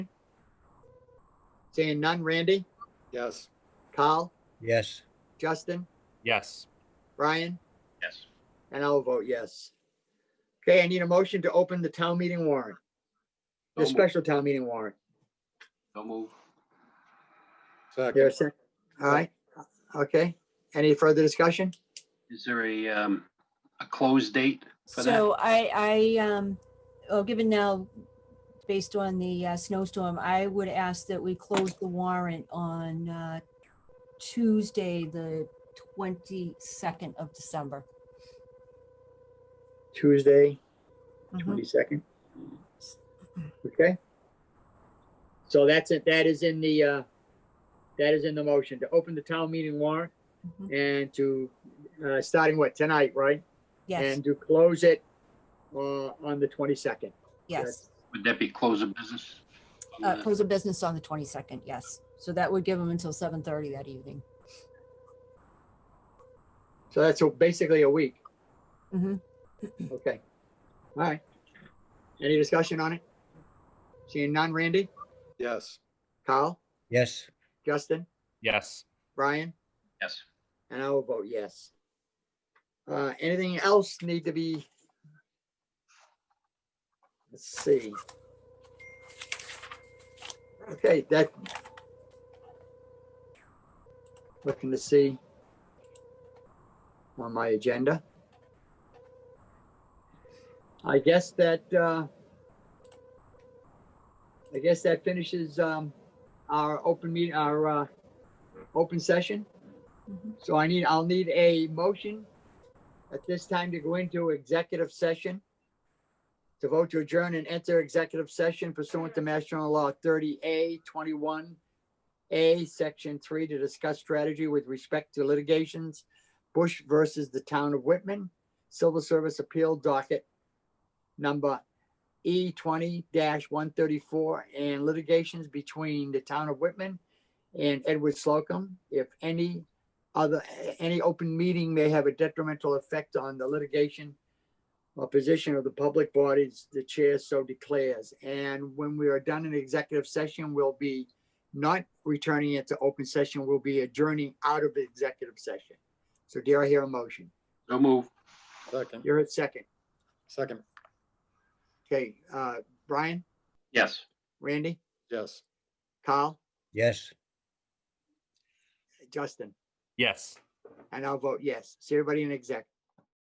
Saying none, Randy, Yes. Carl, Yes. Justin, Yes. Brian, Yes. and I'll vote yes. Okay, I need a motion to open the town meeting warrant, the So moved. special town meeting warrant. So move. There, Second. a sec- all right, okay. Any further discussion? Is there a, um, a close date? for that? So I, I, um, oh, given now, based on the uh, snowstorm, I would ask that we close the warrant on uh, Tuesday, the 22nd of December. Tuesday, Mm-hmm. Mhm. twenty-second. Okay. So that's it, that is in the, uh, that is in the motion to open the town meeting warrant Mhm. and to, uh, starting what, tonight, right? Yes, And to close it, uh, on the twenty-second. yes. Would that be close of business? on Uh, the- Close of business on the 22nd, yes. So that would give them until 7:30 that evening. So that's a- basically a week. Mhm. Okay. All right. Any discussion on it? Seeing none, Randy, Yes. Kyle, Yes. Justin, Yes. Brian, Yes. and I will vote yes. Uh, anything else need to be? Let's see. Okay, that. Looking to see. On my agenda. I guess that, uh. I guess that finishes, um, our open meet, our, uh, open session. Mhm. So I need, I'll need a motion at this time to go into executive session. To vote to adjourn and enter executive session pursuant to Mass General Law thirty A twenty-one. A, section three, to discuss strategy with respect to litigations, Bush versus the town of Whitman, civil service appeal docket. Number E twenty one thirty-four and litigations between the town of Whitman and Edward Slocum, if any other, any open meeting may have a detrimental effect on the litigation or position of the public bodies, the chair so declares. And when we are done in executive session, we'll be not returning it to open session, we'll be adjourning out of executive session. So dare I hear a motion? So move. Second. You're at second. Second. Okay, uh, Brian, Yes. Randy, Yes. Kyle, Yes. Justin, Yes. and I'll vote yes. See everybody in exec.